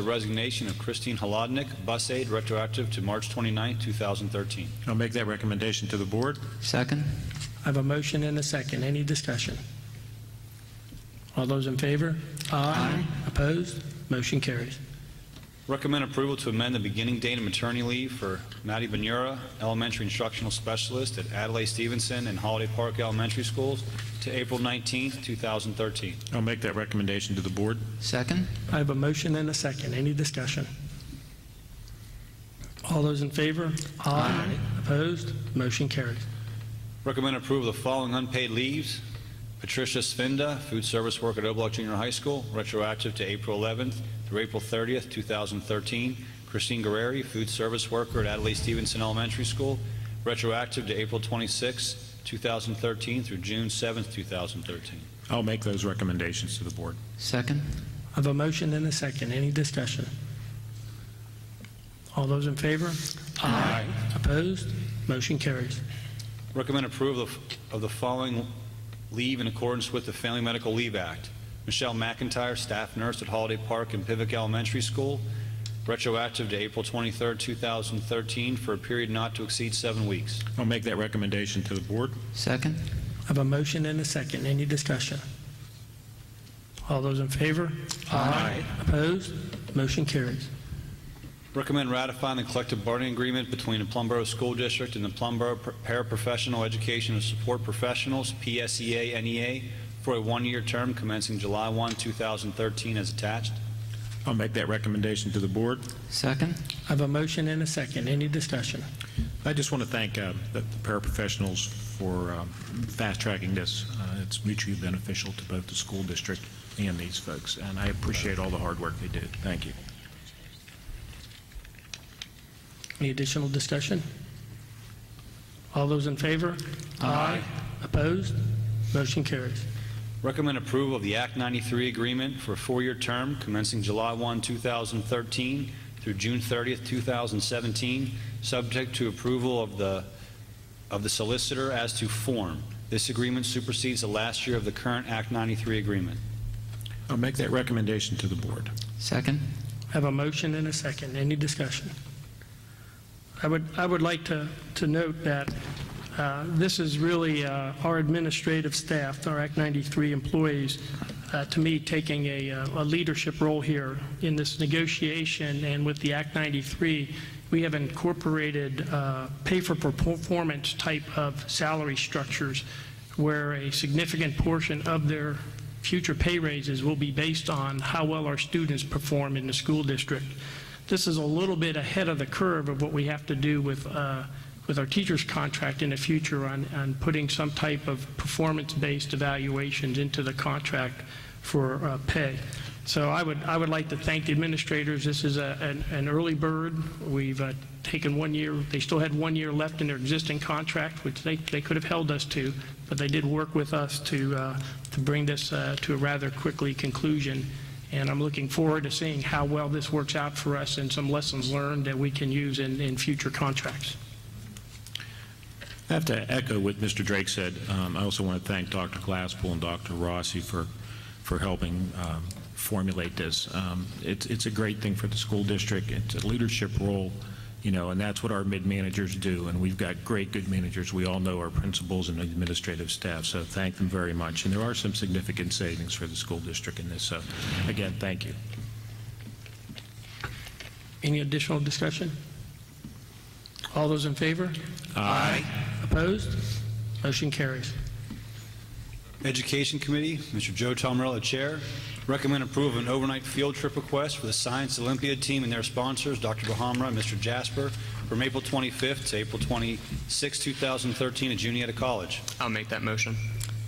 The resignation of Christine Holodnik, bus aide, retroactive to March 29, 2013. I'll make that recommendation to the board. Second? I have a motion and a second. Any discussion? All those in favor? Aye. Opposed? Motion carries. Recommend approval to amend the beginning date of maternity leave for Maddie Benura, elementary instructional specialist at Adelaide Stevenson and Holiday Park Elementary Schools, to April 19, 2013. I'll make that recommendation to the board. Second? I have a motion and a second. Any discussion? All those in favor? Aye. Opposed? Motion carries. Recommend approval of the following unpaid leaves. Patricia Svinda, food service worker at O'Block Junior High School, retroactive to April 11th through April 30th, 2013. Christine Guerreri, food service worker at Adelaide Stevenson Elementary School, retroactive to April 26th, 2013 through June 7th, 2013. I'll make those recommendations to the board. Second? I have a motion and a second. Any discussion? All those in favor? Aye. Opposed? Motion carries. Recommend approval of- of the following leave in accordance with the Family Medical Leave Act. Michelle McIntyre, staff nurse at Holiday Park and Pivot Elementary School, retroactive to April 23, 2013, for a period not to exceed seven weeks. I'll make that recommendation to the board. Second? I have a motion and a second. Any discussion? All those in favor? Aye. Opposed? Motion carries. Recommend ratifying the collective bargaining agreement between the Plumboro School District and the Plumboro Paraprofessional Education and Support Professionals, E PSEA NEA, for a one-year term commencing July 1, 2013, as attached. I'll make that recommendation to the board. Second? I have a motion and a second. Any discussion? I just want to thank uh, the paraprofessionals for um, fast-tracking this. Uh, It's mutually beneficial to both the school district and these folks, and I appreciate all the hard work they do. Thank you. Any additional discussion? All those in favor? Aye. Opposed? Motion carries. Recommend approval of the Act 93 agreement for a four-year term commencing July 1, 2013 through June 30, 2017, subject to approval of the, of the solicitor as to form. This agreement supersedes the last year of the current Act 93 agreement. I'll make that recommendation to the board. Second? I Have a motion and a second. Any discussion? I would, I would like to, to note that uh, this is really uh, our administrative staff, our Act 93 employees, uh, to me, taking a, uh, a leadership role here in this negotiation and with the Act 93. We have incorporated uh, pay-for-performance type of salary structures where a significant portion of their future pay raises will be based on how well our students perform in the school district. This is a little bit ahead of the curve of what we have to do with, uh, with our teachers' contract in the future on, on putting some type of performance-based evaluations into the contract for uh, pay. So I would, I would like to thank the administrators. This is a, an, an early bird. We've uh, taken one year, they still had one year left in their existing contract, which they, they could have held us to, but they did work with us to, uh, to bring this uh, to a rather quickly conclusion. And I'm looking forward to seeing how well this works out for us and some lessons learned that we can use in, in future contracts. I have to echo what Mr. Drake said. Um, I also want to thank Dr. Glasspool and Dr. Rossi for, for helping um, formulate this. Um, It's, it's a great thing for the school district. It's a leadership role, you know, and that's what our mid-managers do, and we've got great, good managers. We all know our principals and administrative staff, so thank them very much. And there are some significant savings for the school district in this, so again, thank you. Any additional discussion? All those in favor? Aye. Opposed? Motion carries. Education Committee, Mr. Joe Tomarella, Chair. Recommend approval of an overnight field trip request for the Science Olympiad team and their sponsors, Dr. Bahamra and Mr. Jasper, from April 25th to April 26, 2013, at Juniata College. I'll make that motion.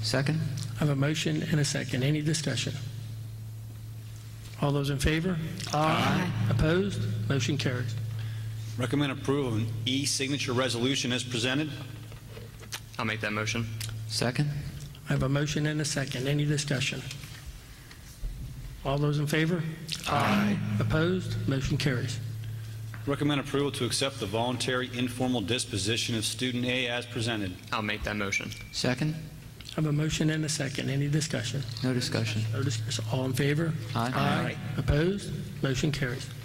Second? I have a motion and a second. Any discussion? All those in favor? Aye. Opposed? Motion carries. Recommend approval of an e-signature resolution as presented. I'll make that motion. Second? I have a motion and a second. Any discussion? All those in favor? Aye. Opposed? Motion carries. Recommend approval to accept the voluntary informal disposition of student A as presented. I'll make that motion. Second? I have a motion and a second. Any discussion? No discussion. No discussion. All in favor? Aye. Opposed? Motion carries.